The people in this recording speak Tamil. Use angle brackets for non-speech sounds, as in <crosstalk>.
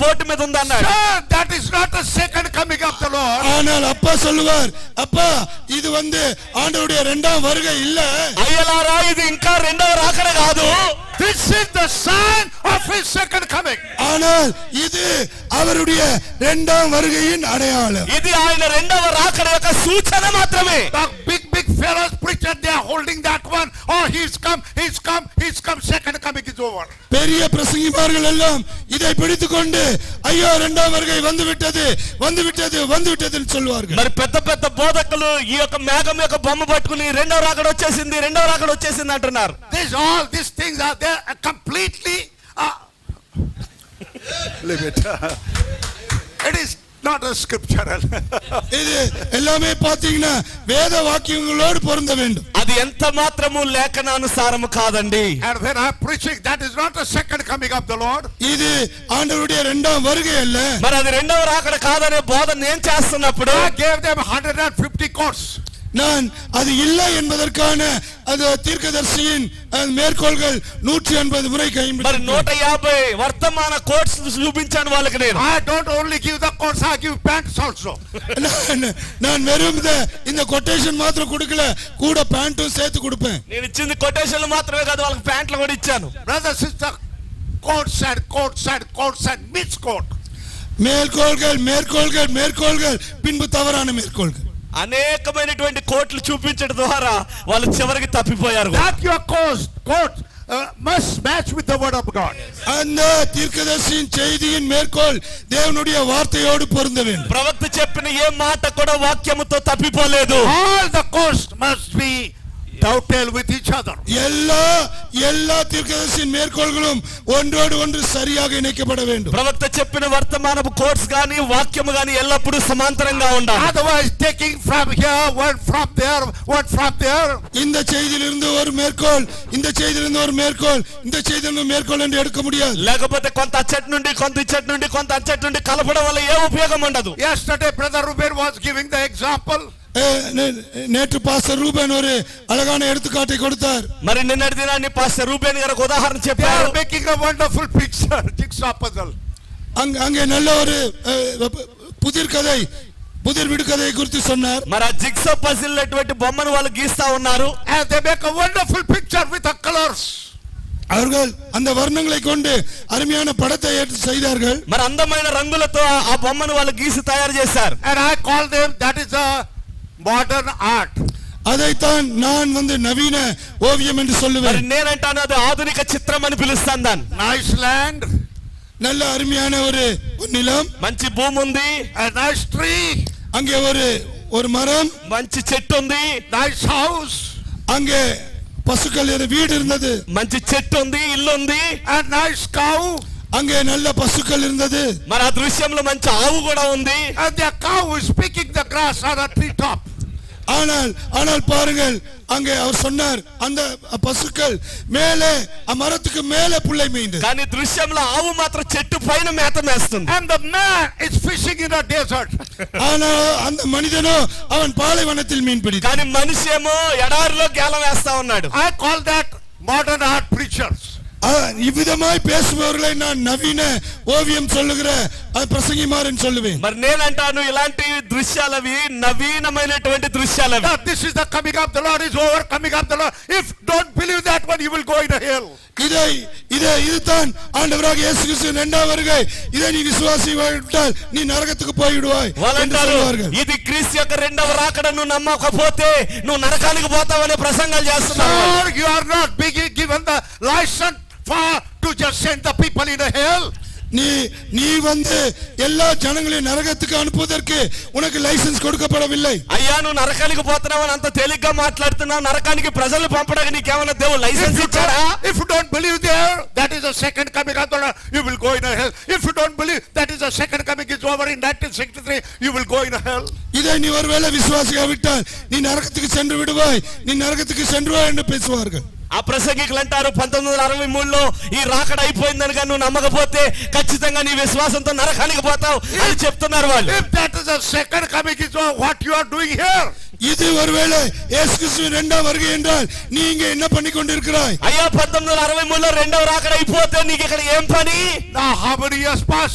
బోటు మీద ఉంది అన్నాడు Sir, that is not the second coming of the Lord. ஆனால் அப்பா சொல்லுவார் அப்பா இது வந்து ஆண்டவருடைய இரண்டாம் வருகை இல்ல అయ్యలారా ఇది ఇంకా రెండవ రాకడ కాదు This is the sign of his second coming. ஆனால் இது அவருடைய இரண்டாம் வருகையின் அடையாளம் ఇది ఆయన రెండవ రాకడ యొక్క సూచన మాత్రమే The big, big fellows preacher, they are holding that one. Oh, he's come, he's come, he's come, second coming is over. பெரிய பிரசங்கிமார்கள் எல்லாம் இதை பிடித்துக்கொண்டு ஐயோ இரண்டாம் வருகை வந்து விட்டது வந்து விட்டது வந்து விட்டதுன்னு சொல்லுவார்கள் మరి పెద్ద పెద్ద బోధకులు ఈ యొక్క మేఘం యొక్క బొమ్మ పట్టుకుని రెండవ రాకడ వచ్చేసింది రెండవ రాకడ వచ్చేసింది అంటున్నారు This, all these things are there uh, completely, uh, leave it. <laughs> It is not a scriptural. <laughs> இது எல்லாமே பாத்தீங்கன்னா வேத வாக்கியங்களோடு பொருந்த வேண்டும் అది ఎంత మాత్రము లేఖనానుసారము కాదండి And when I'm preaching, that is not the second coming of the Lord. இது ஆண்டவருடைய இரண்டாம் வருகை அல்ல మరి అది రెండవ రాకడ కాదనే బోధ నేను చేస్తున్నప్పుడు I gave them hundred and fifty courts. நான் அது இல்லை என்பதற்கான அந்த தீர்க்கதரிசியின் அந்த மேற்கோள்கள் நூற்றி எண்பது முறை మరి கைம்பெற்றது. నూట యాభై వర్తమాన కోట్స్ చూపించాను వాళ్ళకి నేను I don't only give the courts, I give pants also. நான் நான் வெறும் இந்த- இந்த கொட்டேஷன் மாத்திரம் கொடுக்கல கூட பேண்ட்டும் சேர்த்து கொடுப்பேன் నేను ఇచ్చింది కొటేషన్లు మాత్రమే కాదు వాళ్ళకి ప్యాంట్లు కూడా ఇచ్చాను Brother, sister, courts and courts and courts and misquote. மேற்கோள்கள் மேற்கோள்கள் மேற்கோள்கள் பின்பு தவறான మేర్కోల్గల్ అనేకమైనటువంటి కోట్లు చూపించడం ద్వారా వాళ్ళు చివరికి తప్పిపోయారు కూడా. That your course, court uh, must match with the word of God. அந்த தீர்க்கதரிசியின் செய்தியின் மேற்கோள் தேவனுடைய வார்த்தையோடு பொருந்த வேண்டும் ప్రవక్త చెప్పిన ఏ మాట కూడా వాక్యముతో తప్పిపోలేదు All the courts must be dovetail with each other. எல்லா எல்லா தீர்க்கதரிசியின் மேற்கோள்களும் ஒன்றோடு ஒன்று சரியாக இணைக்கப்பட வேண்டும் ప్రవక్త చెప్పిన వర్తమానపు కోర్స్ గాని వాక్యము గాని ఎల్లప్పుడూ సమాంతరంగా ఉండాలి Otherwise, taking from here, one from there, one from there. இந்த செய்தியிலிருந்து ஒரு மேற்கோள் இந்த செய்தியிலிருந்து ஒரு மேற்கோள் இந்த செய்தியிலிருந்து மேற்கோள் என்று எடுக்க முடியாது లేకపోతే కొంత అచ్చటి నుండి కొంత ఇచ్చటి నుండి కొంత అచ్చటి నుండి కలపడం వల్ల ఏ ఉపయోగం ఉండదు Yesterday, Brother Ruben was giving the example. அஹ், நே- நேற்று பாஸ்டர் ரூபன் ஒரு அழகான எடுத்துக்காட்டை கொடுத்தார் మరి నిన్నటి దినాన్ని పాస్టర్ రూబేన్ గారు ఒక ఉదాహరణ They చెప్పారు are making a wonderful picture, <laughs> jigsaw puzzle. அங்க அங்கே நல்ல ஒரு அஹ், புதிர் கதை புதிர் விடுகதையை குறித்து சொன்னார் మరి ఆ జిగ్సో పజిల్ అటువంటి బొమ్మను వాళ్ళు గీస్తా ఉన్నారు And they make a wonderful picture with the colors. அவர்கள் அந்த வர்ணங்களை கொண்டு அருமையான படத்தை ஏற்று செய்தார்கள் మరి అందమైన రంగులతో ఆ- ఆ బొమ్మను వాళ్ళు గీసి తయారు చేశారు And I call them, that is a modern art. அதைத்தான் நான் வந்து நவீன ஓவியம் என்று మరి சொல்லுவேன் నేనంటాను అది ఆధునిక చిత్రం అని పిలుస్తాను దాన్ని Nice land, நல்ல అరుமையான ஒரு நிலம் మంచి భూమి ఉంది a nice tree, அங்கே ஒரு ஒரு மரம் మంచి చెట్టు ఉంది nice house, அங்கே பசுக்கள் இரு- வீடு இருந்தது మంచి చెట్టు ఉంది ఇల్లు ఉంది a nice cow, அங்கே நல்ல పశుக்கள் இருந்தது మరి ఆ దృశ్యంలో మంచి ఆవు కూడా ఉంది and the cow is picking the grass on a treetop. ஆனால் ஆனால் பாருங்கள் அங்கே அவர் சொன்னார் அந்த பசுக்கள் மேலே அ- மரத்துக்கு மேலே புள்ளை மீண்டது కానీ దృశ్యంలో ఆవు మాత్రం చెట్టు పైన మేత మేస్తుంది And the man is fishing in a desert. ஆனால் அந்த மனிதனோ அவன் பாலைவனத்தில் மீன் பிடித்தான் కానీ మనిషి ఏమో ఎడారిలో గేలం వేస్తా ఉన్నాడు I call that modern art preachers. அஹ், இவ்விதமாய் பேசுபவர்களை நான் நவீன ஓவியம் சொல்லுகிற அஹ், பிரசங்கிமாறன் சொல்லுவேன் మరి నేనంటాను ఇలాంటి దృశ్యాలు అవి నవీనమైనటువంటి దృశ్యాలు అవి Now this is the coming of the Lord is over, coming of the Lord. If don't believe that one, you will go in the hell. இதை இதை இதுதான் ஆண்டவராக இயேசு கிறிஸ்து இரண்டாம் வருகை இதை நீ விசுவாசி விட்டால் நீ நரகத்துக்கு போய்விடுவாய் என்று వాళ్ళంటారు சொல்வார்கள் ఇది క్రీస్తు యొక్క రెండవ రాకడ నువ్వు నమ్మకపోతే నువ్వు నరకానికి పోతావనే ప్రసంగాలు చేస్తున్నావు Sir, you are not being given the license for to just send the people in the hell. நீ நீ வந்து எல்லா ஜனங்களையும் நரகத்துக்கு அனுப்புவதற்கு உனக்கு லைசென்ஸ் கொடுக்கப்படவில்லை అయ్యా నువ్వు నరకానికి పోతున్నావు అని అంత తేలిగ్గా మాట్లాడుతున్నావు నరకానికి ప్రజలు పంపడానికి నీకేమైనా దేవుడు If లైసెన్స్ you, ఇచ్చాడా don't, if you don't believe there, that is the second coming of the Lord, you will go in a hell. If you don't believe that is the second coming is over in 1963, you will go in a hell. இதை நீ ஒருவேளை விசுவாசிக்காவிட்டால் நீ நரகத்துக்கு சென்று விடுவாய் நீ நரகத்துக்கு சென்றுவாய் என்று பேசுவார்கள் ఆ ప్రసంగికులు అంటారు పంతొమ్మిది వందల అరవై మూడులో ఈ రాకడ అయిపోయిందని కానీ నువ్వు నమ్మకపోతే ఖచ్చితంగా నీ విశ్వాసంతో నరకానికి పోతావు అని చెప్తున్నారు వాళ్ళు If that is the second coming is over, what you are doing here? இது ஒருவேளை இயேசு கிறிஸ்து இரண்டாம் வருகை என்றால் நீ இங்கே என்ன பண்ணி கொண்டிருக்கிறாய் అయ్యా పంతొమ్మిది వందల అరవై మూడులో రెండవ రాకడ అయిపోతే నీకు ఇక్కడ ఏం పని Now how many years passed?